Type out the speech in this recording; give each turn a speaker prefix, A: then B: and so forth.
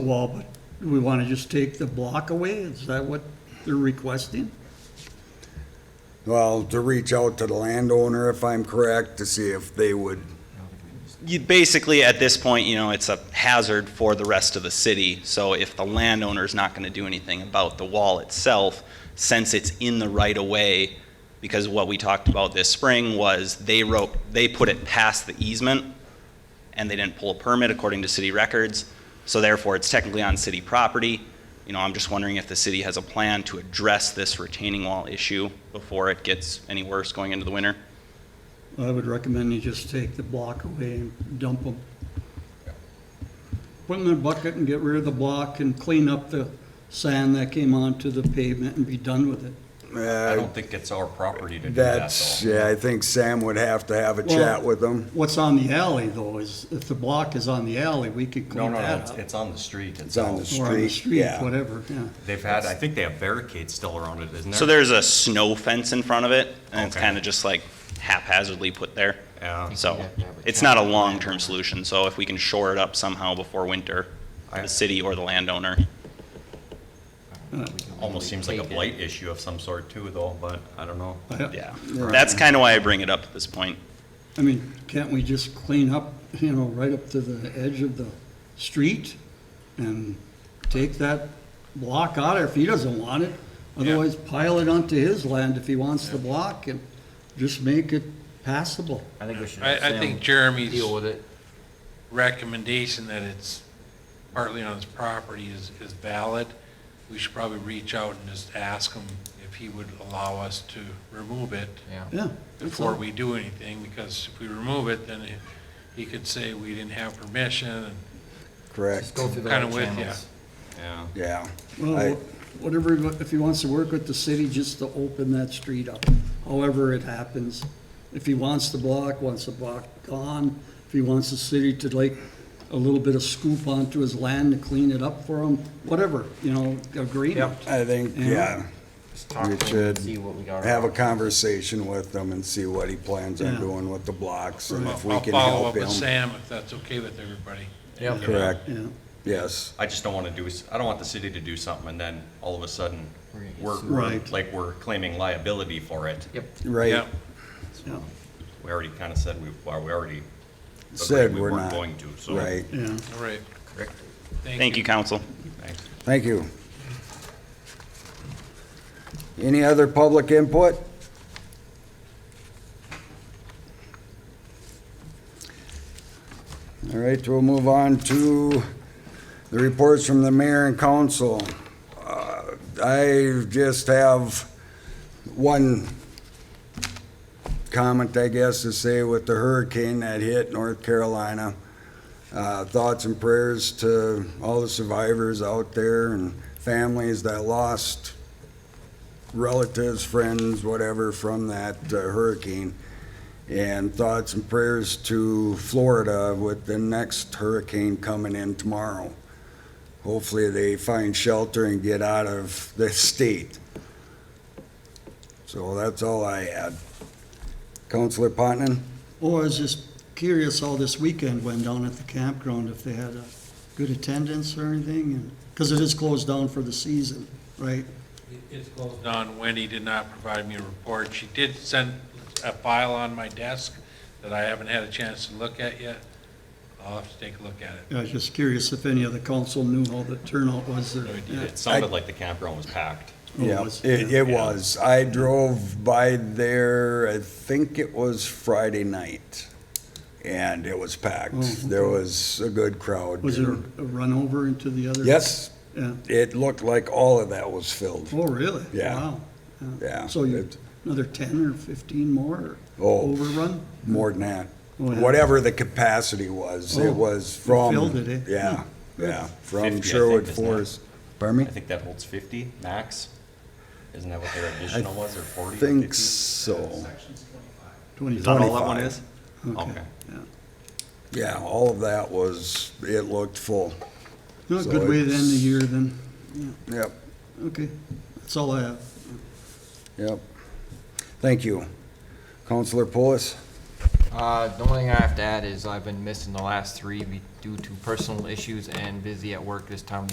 A: wall, but we want to just take the block away? Is that what they're requesting?
B: Well, to reach out to the landowner, if I'm correct, to see if they would,
C: You, basically, at this point, you know, it's a hazard for the rest of the city. So if the landowner's not going to do anything about the wall itself, since it's in the right of way, because what we talked about this spring was they wrote, they put it past the easement and they didn't pull a permit according to city records. So therefore, it's technically on city property. You know, I'm just wondering if the city has a plan to address this retaining wall issue before it gets any worse going into the winter.
A: I would recommend you just take the block away and dump them. Put them in a bucket and get rid of the block and clean up the sand that came onto the pavement and be done with it.
D: I
B: uh,
D: don't think it's our property to do that,
B: that's,
D: though.
B: yeah, I think Sam would have to have a
A: Well-
B: chat with them.
A: What's on the alley though is, if the block is on the alley, we could
D: No,
A: clean
D: no, no,
A: that
D: it's-
A: up.
D: it's on the street.
B: It's on
A: Or
B: the
A: on the
B: street,
A: street,
B: yeah.
A: whatever, yeah.
D: They've had, I think they have barricades still around it, isn't there?
C: So there's a snow fence in front of it, and it's
D: Okay.
C: kind of just like haphazardly put there.
D: Yeah.
C: So it's not a long-term solution, so if we can shore it up somehow before winter,
D: I-
C: the city or the landowner.
D: Almost seems like a blight issue of some sort too, though, but I don't know.
A: I-
C: Yeah. That's kind of why I bring it up at this point.
A: I mean, can't we just clean up, you know, right up to the edge of the street and take that block out if he doesn't want it? Otherwise pile it onto his land if he wants the block and just make it passable.
E: I think we should.
F: I,
E: have
F: I
E: Sam
F: think Jeremy's
E: Deal with it.
F: recommendation that it's partly on his property is, is valid. We should probably reach out and just ask him if he would allow us to remove it
E: Yeah.
A: Yeah. that's
F: before
A: all.
F: we do anything, because if we remove it, then he- he could say we didn't have permission.
E: Just
B: Correct,
E: go through the
F: Kinda
E: right
F: with ya.
E: channels.
D: Yeah.
B: yeah. I-
A: Well, whatever, if he wants to work with the city, just to open that street up, however it happens. If he wants the block, wants the block gone, if he wants the city to like a little bit of scoop onto his land to clean it up for him, whatever, you know, agreement.
B: I think, yeah,
E: Just talk
B: We
E: to him
B: should
E: and see what we got.
B: have a conversation with them and see what he plans on
A: Yeah.
B: doing with the blocks and
F: I'll
B: if we
F: I'll
B: can
F: follow
B: help
F: up with
B: him.
F: Sam if that's okay with everybody.
E: Yep.
B: Correct,
A: Yeah,
B: yes,
D: I just don't want to do, s- I don't want the city to do something and then all of a sudden,
E: We're gonna get
D: we're,
E: sued.
D: we're-
A: Right.
D: like, we're claiming liability for it.
E: Yep.
B: right,
F: Yep.
A: yeah,
D: We already kind of said we, well, we already
B: Said
D: agreed we
B: we're
D: weren't
B: not.
D: going to, so.
B: right.
A: yeah.
F: All right.
D: Correct.
C: Thank you, council.
D: Thanks.
B: Thank you. Any other public input? All right, we'll move on to the reports from the mayor and council. Uh, I just have one comment, I guess, to say with the hurricane that hit North Carolina uh, thoughts and prayers to all the survivors out there and families that lost relatives, friends, whatever, from that uh, hurricane. And thoughts and prayers to Florida with the next hurricane coming in tomorrow. Hopefully, they find shelter and get out of the state. So that's all I had. Counselor Potenon?
A: Or Oh, I was just curious how this weekend went down at the campground, if they had a good attendance or anything, because it is closed down for the season, right?
F: It's closed. Don, Wendy did not provide me a report. She did send a file on my desk that I haven't had a chance to look at yet. I'll have to take a look at it.
A: Yeah, I was just curious if any of the council knew how the turnout was there.
D: No, it-
A: Yeah.
D: It sounded like the campground was packed.
A: Oh,
B: Yeah,
A: was-
B: it,
A: yeah.
B: it was. I drove by there, I think it was Friday night, and it was
A: Oh, okay.
B: packed. There was a good crowd.
A: Was there a run over into the other?
B: Yes,
A: Yeah.
B: it looked like all of that was filled.
A: Oh, really?
B: Yeah.
A: Wow.
B: Yeah,
A: So you,
B: it-
A: another ten or fifteen more
B: Oh.
A: overrun?
B: More than that.
A: Oh, yeah.
B: Whatever the capacity was,
A: Oh,
B: it was
A: it
B: from.
A: filled it, eh?
B: Yeah,
A: Yeah.
B: yeah,
D: 50, I
B: from
D: think,
B: Sherwood
D: isn't it?
B: Forest. Pardon me?
D: I think that holds fifty max. Isn't that what their
B: I
D: additional was, or forty or fifty?
B: Think so.
D: Is that all
A: Twenty-five.
D: that one is?
A: Okay.
D: Okay.
A: Yeah.
B: Yeah, all of that was, it looked full.
A: No,
B: So
A: Good way to end the
B: it's-
A: year then.
B: Yep,
A: Okay. That's all I have.
B: yep. Thank you. Counselor Polis?
E: Uh, the only thing I have to add is I've been missing the last three be- due to personal issues and busy at work this time of